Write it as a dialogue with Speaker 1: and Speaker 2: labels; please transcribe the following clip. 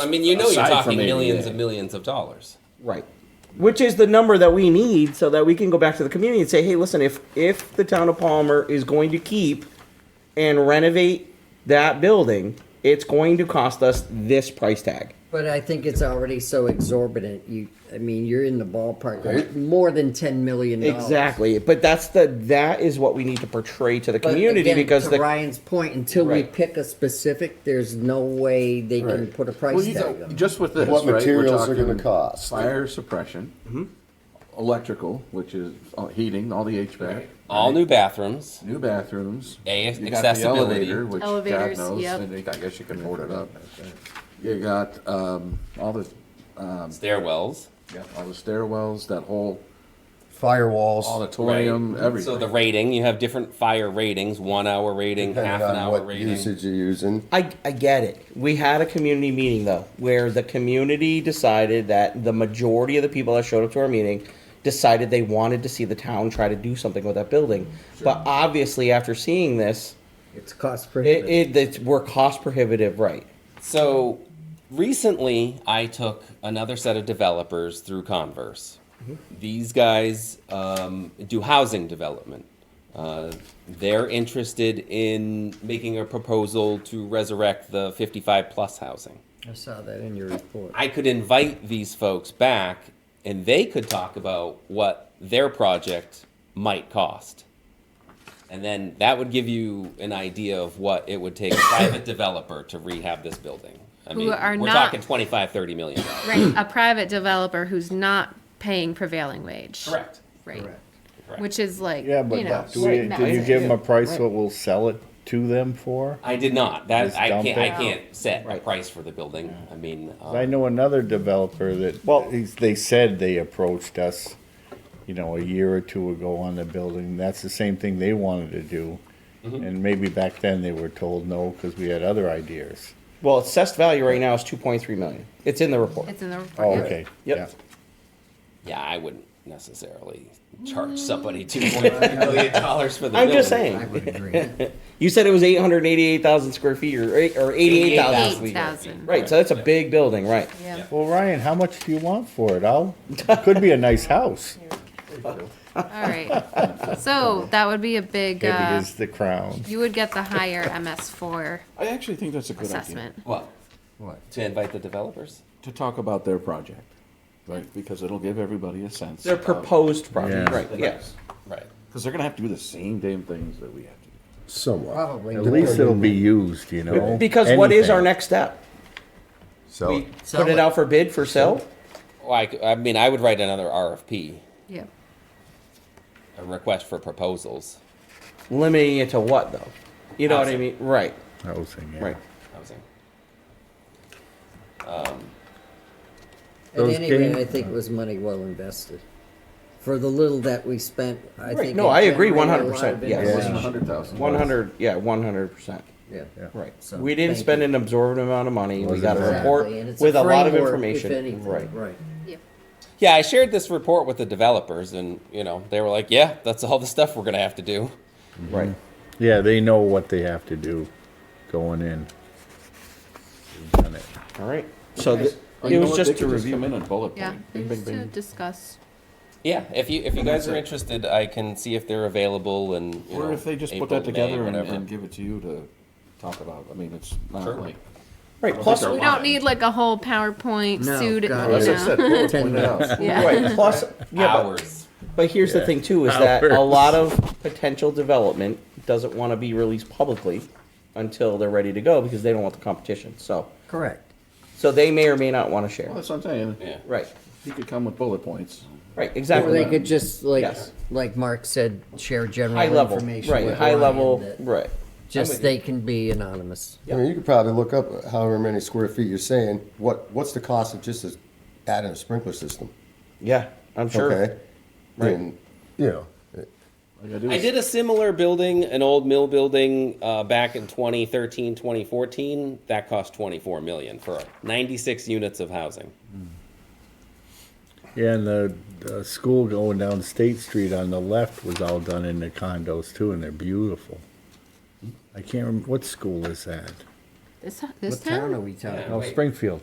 Speaker 1: I mean, you know, you're
Speaker 2: Aside
Speaker 1: talking
Speaker 2: from it,
Speaker 1: millions
Speaker 2: yeah.
Speaker 1: and millions of dollars.
Speaker 2: Right.
Speaker 3: which is the number that we need so that we can go back to the community and say, hey, listen, if if the town of Palmer is going to keep and renovate that building, it's going to cost us this price tag.
Speaker 4: But I think it's already so exorbitant. You, I mean, you're in the ballpark of more than ten million dollars.
Speaker 3: Exactly. But that's the that is what we need to portray to the
Speaker 4: But
Speaker 3: community
Speaker 4: again,
Speaker 3: because
Speaker 4: to
Speaker 3: the
Speaker 4: Ryan's point, until we
Speaker 3: Right.
Speaker 4: pick a specific, there's no way they can
Speaker 5: Right.
Speaker 4: put a
Speaker 5: Well,
Speaker 4: price
Speaker 5: you
Speaker 4: tag
Speaker 5: know,
Speaker 4: on. it.
Speaker 5: Just with this,
Speaker 6: What
Speaker 5: right, we're
Speaker 6: materials are
Speaker 5: talking
Speaker 6: gonna cost?
Speaker 5: Fire suppression,
Speaker 1: Mm-hmm.
Speaker 5: electrical, which is all- heating, all the HVAC,
Speaker 1: All new bathrooms.
Speaker 5: new bathrooms.
Speaker 1: A-
Speaker 5: You got the
Speaker 1: accessibility.
Speaker 5: elevator, Which God
Speaker 7: Elevators,
Speaker 5: knows,
Speaker 7: yep.
Speaker 5: and I guess you can board it up. You got, um, all the, um,
Speaker 1: stairwells,
Speaker 5: yeah, all the stairwells, that whole
Speaker 6: Firewalls.
Speaker 5: auditorium, everything.
Speaker 1: So the rating, you have different fire ratings, one hour rating, half
Speaker 6: Depending
Speaker 1: an
Speaker 6: on
Speaker 1: hour
Speaker 6: what
Speaker 1: rating.
Speaker 6: usage you're using.
Speaker 3: I, I get it. We had a community meeting though, where the community decided that the majority of the people that showed up to our meeting decided they wanted to see the town try to do something with that building. But obviously, after seeing this,
Speaker 4: It's cost
Speaker 3: it, it
Speaker 4: prohibitive.
Speaker 3: it's, we're cost prohibitive, right?
Speaker 1: So recently, I took another set of developers through Converse.
Speaker 6: Mm-hmm.
Speaker 1: These guys um, do housing development. Uh, they're interested in making a proposal to resurrect the 55 plus housing.
Speaker 4: I saw that in your report.
Speaker 1: I could invite these folks back and they could talk about what their project might cost. And then that would give you an idea of what it would take a private developer to rehab this building. I
Speaker 7: Who
Speaker 1: mean,
Speaker 7: are
Speaker 1: we're
Speaker 7: not-
Speaker 1: talking 25, 30 million dollars.
Speaker 7: Right, a private developer who's not paying prevailing wage.
Speaker 1: Correct.
Speaker 7: Right,
Speaker 1: Correct.
Speaker 7: which is like,
Speaker 8: Yeah,
Speaker 7: you
Speaker 8: but
Speaker 7: know.
Speaker 8: do we, did you
Speaker 7: massive.
Speaker 8: give them a price what we'll sell it to them for?
Speaker 1: I did not. That
Speaker 8: Just
Speaker 1: I
Speaker 8: dump
Speaker 1: can't.
Speaker 8: it.
Speaker 1: I can't set a
Speaker 3: Right.
Speaker 1: price for the building. I mean, um,
Speaker 8: I know another developer that, well, he's- they said they approached us, you know, a year or two ago on the building. That's the same thing they wanted to do.
Speaker 3: Mm-hmm.
Speaker 8: And maybe back then they were told no because we had other ideas.
Speaker 3: Well, its assessed value right now is two point three million. It's in the report.
Speaker 7: It's in the report.
Speaker 8: Oh,
Speaker 7: yeah.
Speaker 8: okay.
Speaker 3: Yep.
Speaker 8: yeah.
Speaker 1: yeah, I wouldn't necessarily charge somebody two point three million dollars for the.
Speaker 3: I'm just
Speaker 1: building.
Speaker 4: I
Speaker 3: saying.
Speaker 4: would agree.
Speaker 3: You said it was eight hundred eighty-eight thousand square feet or eight, or eighty-eight thousand.
Speaker 7: Eight thousand,
Speaker 3: Right, so that's a big building, right?
Speaker 7: yeah.
Speaker 8: Well, Ryan, how much do you want for it? I'll, it could be a nice house.
Speaker 7: All right, so that would be a big,
Speaker 8: It
Speaker 7: uh,
Speaker 8: is the crown.
Speaker 7: you would get the higher MS four
Speaker 2: I actually think that's a good idea
Speaker 7: assessment.
Speaker 1: Well,
Speaker 5: What?
Speaker 1: to invite the developers.
Speaker 2: to talk about their project, right? Because it'll give everybody a sense.
Speaker 3: Their
Speaker 2: of-
Speaker 3: proposed project,
Speaker 8: Yeah.
Speaker 3: right? Yes.
Speaker 1: Right.
Speaker 2: Because they're going to have to do the same damn things that we have to do.
Speaker 6: Somewhat.
Speaker 4: Probably.
Speaker 8: At least it'll be used, you know?
Speaker 3: Because what is our
Speaker 8: Anything.
Speaker 3: next step?
Speaker 6: So
Speaker 3: We
Speaker 4: Sell
Speaker 3: put it
Speaker 4: it.
Speaker 3: out for bid for sale?
Speaker 1: Well, I, c- I mean, I would write another RFP,
Speaker 7: Yeah,
Speaker 1: a request for proposals.
Speaker 3: Limiting it to what though? You know what I mean? Right,
Speaker 8: Housing, yeah.
Speaker 3: right.
Speaker 1: Housing.
Speaker 4: At
Speaker 8: Those
Speaker 4: any rate,
Speaker 8: games-
Speaker 4: I think it was money well invested. For the little that we spent, I
Speaker 3: Right,
Speaker 4: think.
Speaker 3: no,
Speaker 4: it
Speaker 3: I agree
Speaker 4: generated a lot of
Speaker 3: 100%, yes.
Speaker 5: Less
Speaker 4: information.
Speaker 5: than a hundred thousand.
Speaker 3: One hundred, yeah, one hundred percent.
Speaker 4: Yeah.
Speaker 3: Right.
Speaker 4: So,
Speaker 3: We didn't
Speaker 4: thank
Speaker 3: spend
Speaker 4: you.
Speaker 3: an absorbent amount of money. We
Speaker 8: Wasn't
Speaker 3: got a
Speaker 8: bad.
Speaker 3: report
Speaker 4: Exactly, and it's
Speaker 3: with a lot of
Speaker 4: framework, if
Speaker 3: information.
Speaker 4: anything,
Speaker 3: Right.
Speaker 4: Right.
Speaker 7: yeah.
Speaker 1: Yeah, I shared this report with the developers, and you know, they were like, "Yeah, that's all the stuff we're gonna have to do."
Speaker 4: Mm-hmm.
Speaker 3: Right.
Speaker 8: Yeah, they know what they have to do going in. They've done it.
Speaker 3: All right. So th-
Speaker 2: You
Speaker 3: it
Speaker 2: know
Speaker 3: was
Speaker 2: what?
Speaker 3: just
Speaker 2: They
Speaker 3: to
Speaker 2: could Come
Speaker 3: review.
Speaker 2: in and bullet
Speaker 7: Yeah,
Speaker 2: point. Bing, bing,
Speaker 7: just to
Speaker 2: bing.
Speaker 7: discuss.
Speaker 1: Yeah, if you if you guys are interested, I can see if they're available and. you
Speaker 2: Or
Speaker 1: know,
Speaker 2: if they just put that
Speaker 1: April, May,
Speaker 2: together and,
Speaker 1: whatever.
Speaker 2: and give it to you to talk about. I mean, it's not
Speaker 1: Sure.
Speaker 2: like.
Speaker 3: Right. Plus,
Speaker 7: We don't need like a whole PowerPoint
Speaker 4: No,
Speaker 7: suit, you
Speaker 4: God, that's
Speaker 7: know.
Speaker 5: bullet
Speaker 4: Ten
Speaker 5: point it out.
Speaker 7: Yeah,
Speaker 3: right. Plus, yeah. But,
Speaker 1: hours.
Speaker 3: but here's the
Speaker 8: Yeah.
Speaker 3: thing too is that a
Speaker 8: Hours.
Speaker 3: lot of potential development doesn't want to be released publicly until they're ready to go because they don't want the competition. So,
Speaker 4: Correct.
Speaker 3: so they may or may not want to share.
Speaker 2: Well, that's what I'm saying.
Speaker 1: Yeah.
Speaker 3: Right.
Speaker 2: He could come with bullet points.
Speaker 3: Right.
Speaker 4: Or
Speaker 3: Exactly.
Speaker 4: they could just like,
Speaker 3: Yes.
Speaker 4: like Mark said, share general
Speaker 3: high level.
Speaker 4: information.
Speaker 3: Right.
Speaker 4: with
Speaker 3: High
Speaker 4: Ryan
Speaker 3: level.
Speaker 4: that
Speaker 3: Right.
Speaker 4: Just they can be anonymous.
Speaker 6: I mean, you could probably look up however many square feet you're saying. What what's the cost of just a- adding a sprinkler system?
Speaker 3: Yeah. I'm sure.
Speaker 6: Okay,
Speaker 3: Right.
Speaker 6: And you know, it-
Speaker 2: All you gotta do
Speaker 1: I
Speaker 2: is-
Speaker 1: did a similar building, an old mill building, uh, back in 2013, 2014. That cost 24 million for 96 units of housing.
Speaker 8: Yeah, and the, the school going down State Street on the left was all done in the condos too, and they're beautiful. I can't remember, what school is that?
Speaker 9: This, this
Speaker 7: What town
Speaker 9: town?
Speaker 7: are we talking?
Speaker 8: No, Springfield.